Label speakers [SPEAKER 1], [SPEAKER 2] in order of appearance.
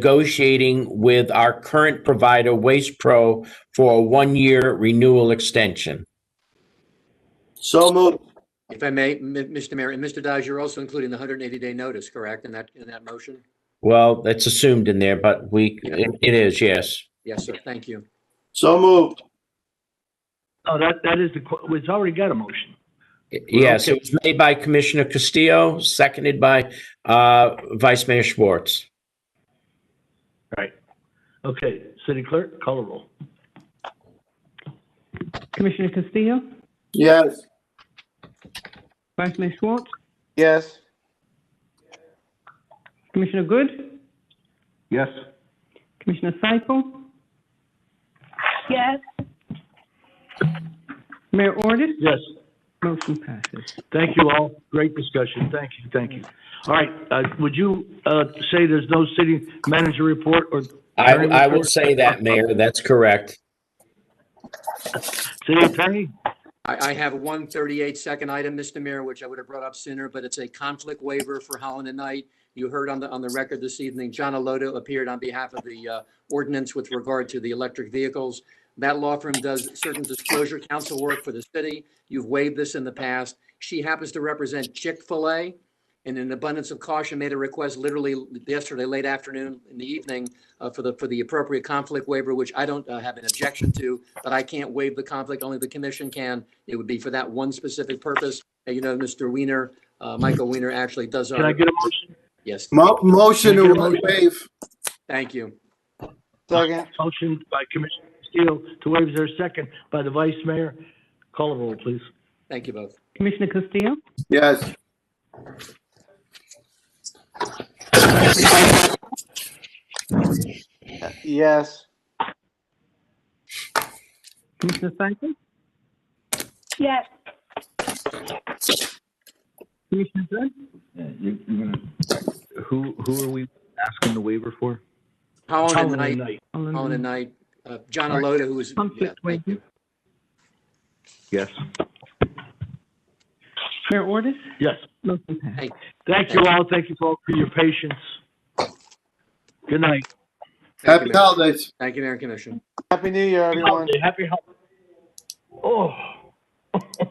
[SPEAKER 1] negotiating with our current provider, Waste Pro, for a one-year renewal extension.
[SPEAKER 2] So moved.
[SPEAKER 3] If I may, M- Mr. Mayor, and Mr. Dodge, you're also including the 180-day notice, correct, in that, in that motion?
[SPEAKER 1] Well, that's assumed in there, but we, it it is, yes.
[SPEAKER 3] Yes, sir, thank you.
[SPEAKER 2] So moved.
[SPEAKER 4] No, Oh, that, that is the, que- it's already got a motion.
[SPEAKER 1] Yes, it was made by Commissioner Castillo, seconded by uh, Vice Mayor Schwartz.
[SPEAKER 4] Right. Okay, city clerk, call a roll.
[SPEAKER 5] Commissioner Castillo,
[SPEAKER 2] Yes.
[SPEAKER 5] Vice Mayor Schwartz,
[SPEAKER 2] Yes.
[SPEAKER 5] Commissioner Good,
[SPEAKER 4] Yes.
[SPEAKER 5] Commissioner Seifel,
[SPEAKER 6] Yes,
[SPEAKER 5] Mayor Ordus,
[SPEAKER 4] Yes,
[SPEAKER 5] motion passes.
[SPEAKER 4] thank you all. Great discussion. Thank you, thank you. All right, uh, would you, uh, say there's no city manager report or?
[SPEAKER 1] I, I will say that, Mayor, that's correct.
[SPEAKER 4] City attorney?
[SPEAKER 3] I, I have one 38-second item, Mr. Mayor, which I would have brought up sooner, but it's a conflict waiver for Holland and Knight. You heard on the, on the record this evening, John Aloto appeared on behalf of the uh, ordinance with regard to the electric vehicles. That law firm does certain disclosure council work for the city. You've waived this in the past. She happens to represent Chick-fil-A, and in abundance of caution, made a request literally yesterday, late afternoon, in the evening, uh, for the, for the appropriate conflict waiver, which I don't uh, have an objection to, but I can't waive the conflict, only the commission can. It would be for that one specific purpose. And you know, Mr. Weiner, uh, Michael Weiner actually does
[SPEAKER 4] Can I
[SPEAKER 3] our,
[SPEAKER 4] get a motion?
[SPEAKER 3] yes,
[SPEAKER 2] Mo- motion to waive.
[SPEAKER 3] thank you.
[SPEAKER 2] Second.
[SPEAKER 4] Motion by Commissioner Steele to waive is there a second by the vice mayor. Call a roll, please.
[SPEAKER 3] Thank you both.
[SPEAKER 5] Commissioner Castillo,
[SPEAKER 2] Yes. Yes.
[SPEAKER 5] Commissioner Seifel,
[SPEAKER 6] yes,
[SPEAKER 5] Commissioner Good,
[SPEAKER 7] You're, you're gonna, who, who are we asking the waiver for?
[SPEAKER 3] Holland and
[SPEAKER 4] Holland
[SPEAKER 3] Knight,
[SPEAKER 4] and Knight.
[SPEAKER 5] all in
[SPEAKER 3] Holland and
[SPEAKER 5] all.
[SPEAKER 3] Knight, uh, John Alota, who was, yeah,
[SPEAKER 5] Conflict
[SPEAKER 3] thank you.
[SPEAKER 5] waiver.
[SPEAKER 7] Yes.
[SPEAKER 5] Mayor Ordus,
[SPEAKER 4] Yes.
[SPEAKER 5] motion passes.
[SPEAKER 4] Thank you all. Thank you all for your patience. Good night.
[SPEAKER 3] Thank you,
[SPEAKER 2] Happy
[SPEAKER 3] Mayor.
[SPEAKER 2] holidays.
[SPEAKER 3] Thank you, Mayor and Commission.
[SPEAKER 8] Happy New Year, everyone.
[SPEAKER 4] Happy holiday. Oh.